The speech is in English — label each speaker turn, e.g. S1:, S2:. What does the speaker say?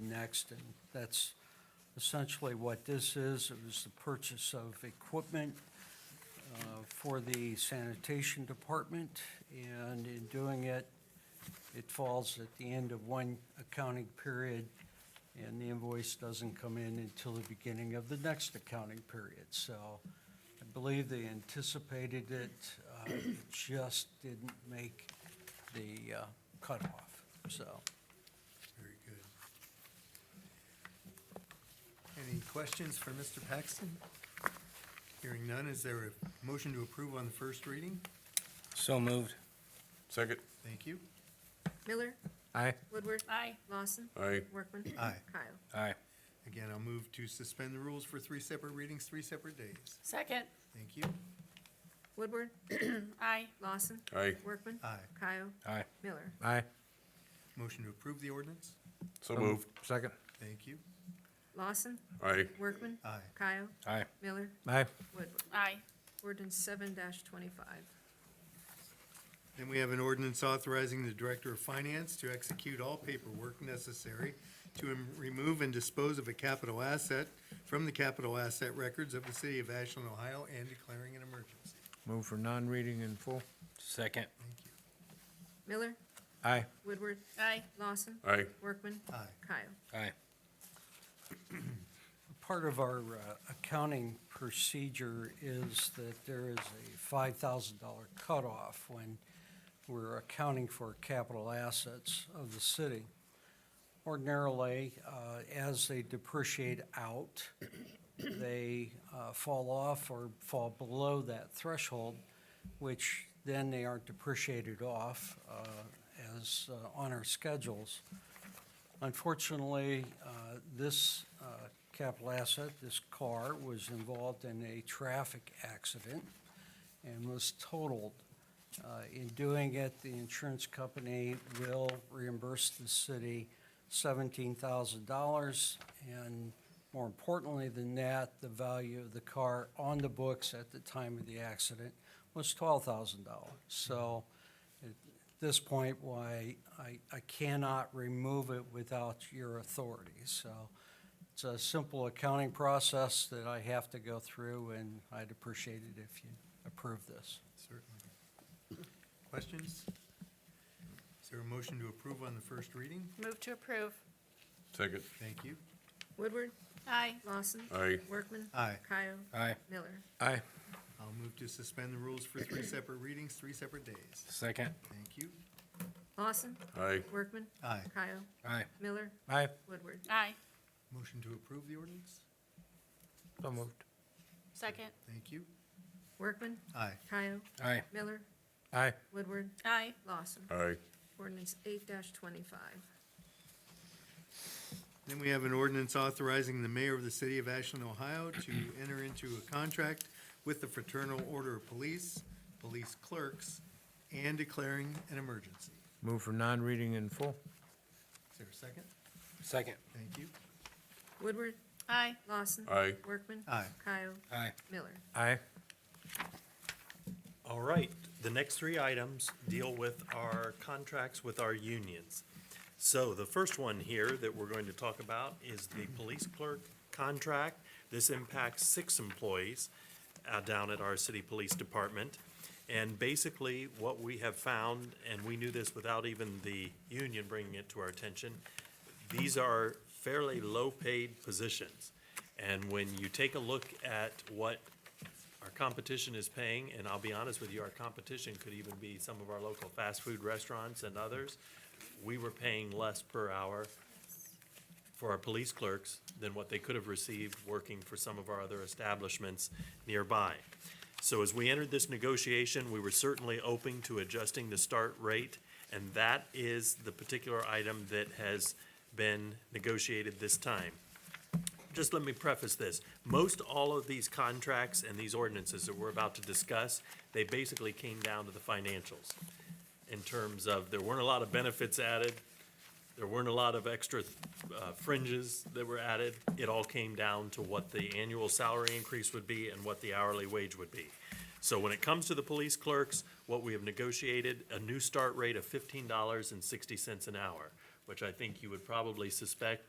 S1: next, and that's essentially what this is. It was the purchase of equipment uh, for the sanitation department, and in doing it, it falls at the end of one accounting period, and the invoice doesn't come in until the beginning of the next accounting period. So I believe they anticipated it, uh, it just didn't make the uh, cutoff, so.
S2: Very good. Any questions for Mr. Paxton? Hearing none, is there a motion to approve on the first reading?
S3: So moved.
S4: Second.
S2: Thank you.
S5: Miller,
S3: Aye.
S5: Woodward. Aye. Lawson.
S4: Aye.
S5: Workman.
S2: Aye.
S5: Kyle.
S3: Aye.
S2: Again, I'll move to suspend the rules for three separate readings, three separate days.
S6: Second.
S2: Thank you.
S5: Woodward.
S6: Aye.
S5: Lawson.
S4: Aye.
S5: Workman.
S2: Aye.
S5: Kyle.
S3: Aye.
S5: Miller.
S3: Aye.
S2: Motion to approve the ordinance?
S4: So moved.
S3: Second.
S2: Thank you.
S5: Lawson.
S4: Aye.
S5: Workman.
S2: Aye.
S5: Kyle.
S3: Aye.
S5: Miller.
S3: Aye.
S5: Woodward.
S6: Aye.
S5: Ordinance seven twenty-five.
S2: Then we have an ordinance authorizing the Director of Finance to execute all paperwork necessary to em- remove and dispose of a capital asset from the capital asset records of the city of Ashland, Ohio, and declaring an emergency.
S3: Move for non-reading in full. Second.
S2: Thank you.
S5: Miller,
S3: Aye.
S5: Woodward.
S6: Aye.
S5: Lawson.
S4: Aye.
S5: Workman.
S2: Aye.
S5: Kyle.
S3: Aye.
S1: Part of our uh, accounting procedure is that there is a $5,000 cutoff when we're accounting for capital assets of the city. Ordinarily, uh, as they depreciate out, they uh, fall off or fall below that threshold, which then they aren't depreciated off uh, as uh, on our schedules. Unfortunately, uh, this uh, capital asset, this car, was involved in a traffic accident and was totaled. Uh, In doing it, the insurance company will reimburse the city $17,000. And more importantly than that, the value of the car on the books at the time of the accident was $12,000. So at this point, why I I cannot remove it without your authority. So it's a simple accounting process that I have to go through, and I'd appreciate it if you approve this.
S2: Certainly. Questions? Is there a motion to approve on the first reading?
S6: Move to approve.
S4: Second.
S2: Thank you.
S5: Woodward.
S6: Aye.
S5: Lawson.
S4: Aye.
S5: Workman.
S2: Aye.
S5: Kyle.
S3: Aye.
S5: Miller.
S3: Aye.
S2: I'll move to suspend the rules for three separate readings, three separate days.
S3: Second.
S2: Thank you.
S5: Lawson.
S4: Aye.
S5: Workman.
S2: Aye.
S5: Kyle.
S3: Aye.
S5: Miller.
S3: Aye.
S5: Woodward.
S6: Aye.
S2: Motion to approve the ordinance?
S3: So moved.
S6: Second.
S2: Thank you.
S5: Workman.
S2: Aye.
S5: Kyle.
S3: Aye.
S5: Miller.
S3: Aye.
S5: Woodward.
S6: Aye.
S5: Lawson.
S4: Aye.
S5: Ordinance eight twenty-five.
S2: Then we have an ordinance authorizing the mayor of the city of Ashland, Ohio to enter into a contract with the Fraternal Order of Police, police clerks, and declaring an emergency.
S3: Move for non-reading in full.
S2: Is there a second?
S3: Second.
S2: Thank you.
S5: Woodward.
S6: Aye.
S5: Lawson.
S4: Aye.
S5: Workman.
S2: Aye.
S5: Kyle.
S3: Aye.
S5: Miller.
S3: Aye.
S7: All right, the next three items deal with our contracts with our unions. So the first one here that we're going to talk about is the police clerk contract. This impacts six employees uh, down at our city police department. And basically, what we have found, and we knew this without even the union bringing it to our attention, these are fairly low-paid positions. And when you take a look at what our competition is paying, and I'll be honest with you, our competition could even be some of our local fast food restaurants and others. We were paying less per hour for our police clerks than what they could have received working for some of our other establishments nearby. So as we entered this negotiation, we were certainly open to adjusting the start rate, and that is the particular item that has been negotiated this time just let me preface this. Most all of these contracts and these ordinances that we're about to discuss, they basically came down to the financials in terms of there weren't a lot of benefits added, there weren't a lot of extra uh, fringes that were added. It all came down to what the annual salary increase would be and what the hourly wage would be. So when it comes to the police clerks, what we have negotiated, a new start rate of fifteen dollars and sixty cents an hour, which I think you would probably suspect